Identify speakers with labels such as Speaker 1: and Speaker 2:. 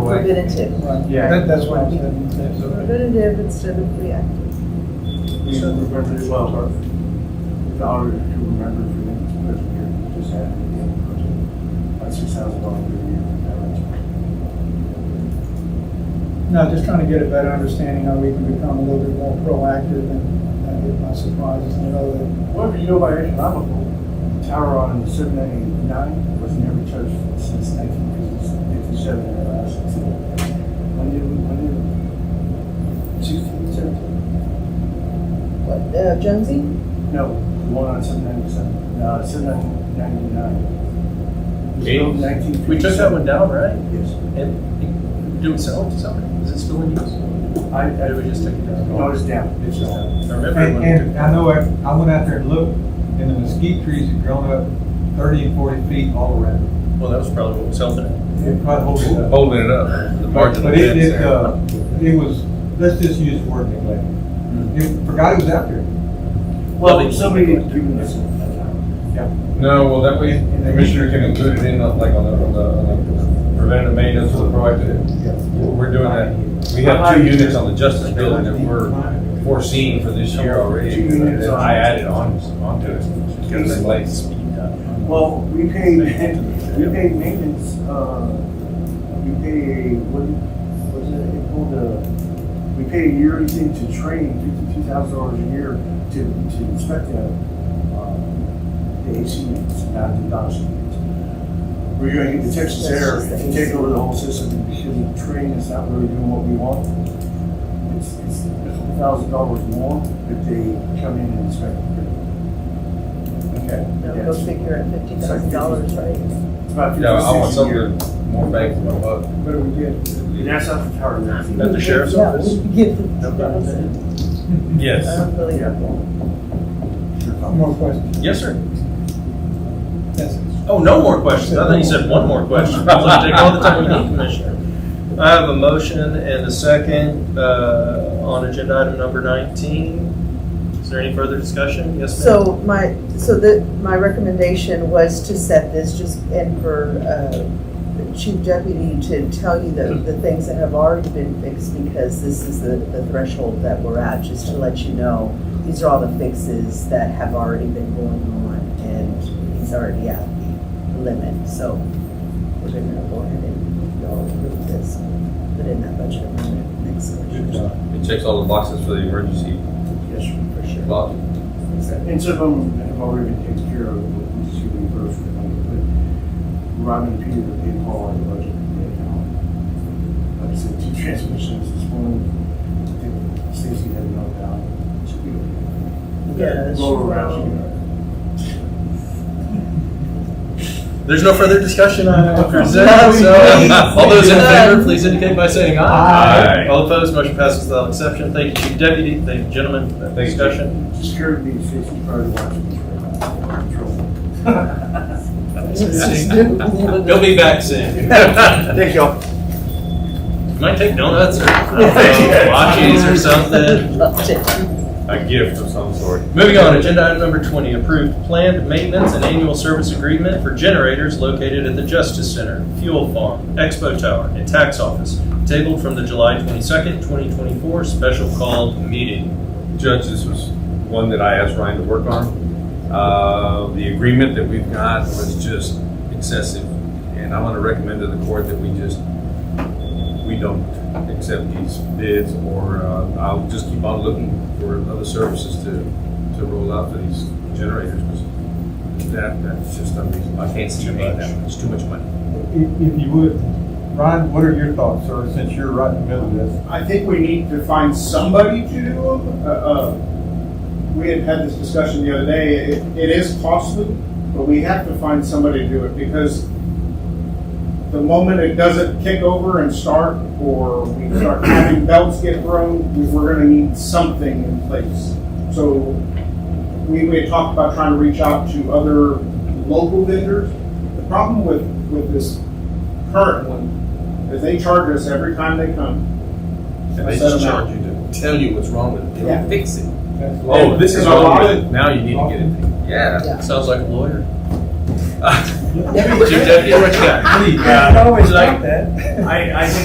Speaker 1: way.
Speaker 2: Preventative.
Speaker 3: Right.
Speaker 1: Yeah.
Speaker 3: That- That's why I said, that's okay.
Speaker 2: Preventative instead of reactive.
Speaker 1: We refer to it well, or the auditor to remember for them, because we just had the other budget, about six thousand dollars per year.
Speaker 3: No, just trying to get a better understanding how we can become a little bit more proactive and not get by surprises and know that,
Speaker 1: Whatever you go by economical, tower on seven ninety-nine was never touched since nineteen fifty-seven, the last. When did, when did, two, seven?
Speaker 2: What, uh, Jonesy?
Speaker 1: No, the one on seven ninety-seven, uh, seven ninety-nine.
Speaker 4: Eight. We took that one down, right?
Speaker 1: Yes.
Speaker 4: And do it sell to somebody? Is it still in use?
Speaker 1: I,
Speaker 4: Or
Speaker 1: I
Speaker 4: did we just take it down?
Speaker 1: No, it's down.
Speaker 4: It's just down. I remember.
Speaker 5: And,
Speaker 4: when we
Speaker 5: and
Speaker 4: took-
Speaker 5: I know, I, I went out there and looked, and the mesquite trees had grown up thirty and forty feet all around.
Speaker 4: Well, that was probably what was helping it.
Speaker 5: It probably holds it up.
Speaker 6: holding it up, the margin of
Speaker 5: But it,
Speaker 6: fence
Speaker 5: it,
Speaker 6: there.
Speaker 5: uh, it was, let's just use the word
Speaker 6: Mm-hmm.
Speaker 5: neglect. It, forgot it was out there.
Speaker 1: Well, somebody didn't do this. Yeah.
Speaker 6: No, well, that way, the commissioner can include it in, uh, like, on the, on the, on the preventative maintenance or the proactive. We're we're doing that, we have two units on the justice building that we're foreseeing for this year already, that I added on, onto it. Because it's late. uh,
Speaker 1: Well, we pay, we pay maintenance, uh, we pay, what, what is it, it called, uh, we pay a yearly thing to train, fifty-two thousand dollars a year to, to inspect the, um, the AC units, not the DOS units. We're gonna get the Texas Air and take over the whole system because the train is not really doing what we want. It's, it's a thousand dollars more if they come in and inspect. Okay.
Speaker 2: No, go figure at fifty thousand dollars, right?
Speaker 1: It's about fifty
Speaker 6: Yeah, I want
Speaker 1: cents a year.
Speaker 6: something more bang for my buck.
Speaker 3: what do we get?
Speaker 1: That's not the tower. that's-
Speaker 4: At the sheriff's
Speaker 2: Yeah,
Speaker 4: office?
Speaker 2: we Give them
Speaker 4: No problem.
Speaker 2: $50,000.
Speaker 6: Yes.
Speaker 2: Unbelievable.
Speaker 3: More questions?
Speaker 4: Yes, sir.
Speaker 3: That's it.
Speaker 4: Oh, no more questions. I thought you said one more question. I was gonna take all the time we need, Commissioner. I have a motion and a second, uh, on agenda item number nineteen. Is there any further discussion? Yes, ma'am?
Speaker 2: So my, so the, my recommendation was to set this just, and for, uh, the chief deputy to tell you the, the things that have already been fixed, because this is the, the threshold that we're at, just to let you know, these are all the fixes that have already been going on, and he's already at the limit, so we're gonna go ahead and go approve this, put in that budget amendment next year.
Speaker 6: It checks all the boxes for the emergency
Speaker 1: Yes, for sure.
Speaker 6: clause.
Speaker 1: And some of them have already been taken care of, but we just reimburse for them. But Robin and Peter have been all on the budget. right now. Like I said, two transmissions, this one, I think Stacy had no doubt. Should be okay.
Speaker 2: Yeah, it's-
Speaker 1: Roll around.
Speaker 4: There's no further discussion I present,
Speaker 2: No,
Speaker 4: so uh,
Speaker 2: please.
Speaker 4: all those in favor, please indicate by saying aye.
Speaker 6: Aye.
Speaker 4: All opposed, motion passes without exception. Thank you, Chief Deputy. Thank you, gentlemen, for that
Speaker 6: Thank you.
Speaker 4: discussion.
Speaker 1: Scared me, Stacy, probably watching. me right now. Control.
Speaker 4: You'll be back soon.
Speaker 1: Thank y'all.
Speaker 4: Might take donuts or watches or something.
Speaker 2: Loved it.
Speaker 6: A gift of some sort.
Speaker 4: Moving on, agenda item number 20, approved planned maintenance and annual service agreement for generators located at the Justice Center, Fuel Farm, Expo Tower, and Tax Office, tabled from the July 22nd, 2024 special call meeting.
Speaker 6: Judge, this was one that I asked Ryan to work on. Uh, The agreement that we've got was just excessive, and I'm going to recommend to the court that we just, we don't accept these bids, or uh, I'll just keep on looking for other services to, to roll out for these generators. 'cause That, that's just unreasonable. I can't see you paying that. It's too much money.
Speaker 5: If, if you would, Ryan, what are your thoughts, sir, since you're right in the middle of this?
Speaker 7: I think we need to find somebody to do them. Uh, uh, We had had this discussion the other day, it, it is costly, but we have to find somebody to do it because the moment it doesn't kick over and start, or we start having belts get thrown, we- we're gonna need something in place. So we, we had talked about trying to reach out to other local vendors. The problem with, with this current one is they charge us every time they come.
Speaker 6: And they just charge you to tell you what's wrong with it. They don't
Speaker 7: Yeah.
Speaker 6: Fix it.
Speaker 5: That's-
Speaker 6: Oh, this is
Speaker 7: There's a lot
Speaker 6: wrong
Speaker 7: of-
Speaker 6: with it. Now you need to get it. Yeah.
Speaker 4: Sounds like a lawyer.
Speaker 6: Yeah.
Speaker 4: Chief Deputy, what you got?
Speaker 3: Always like that.
Speaker 1: I, I think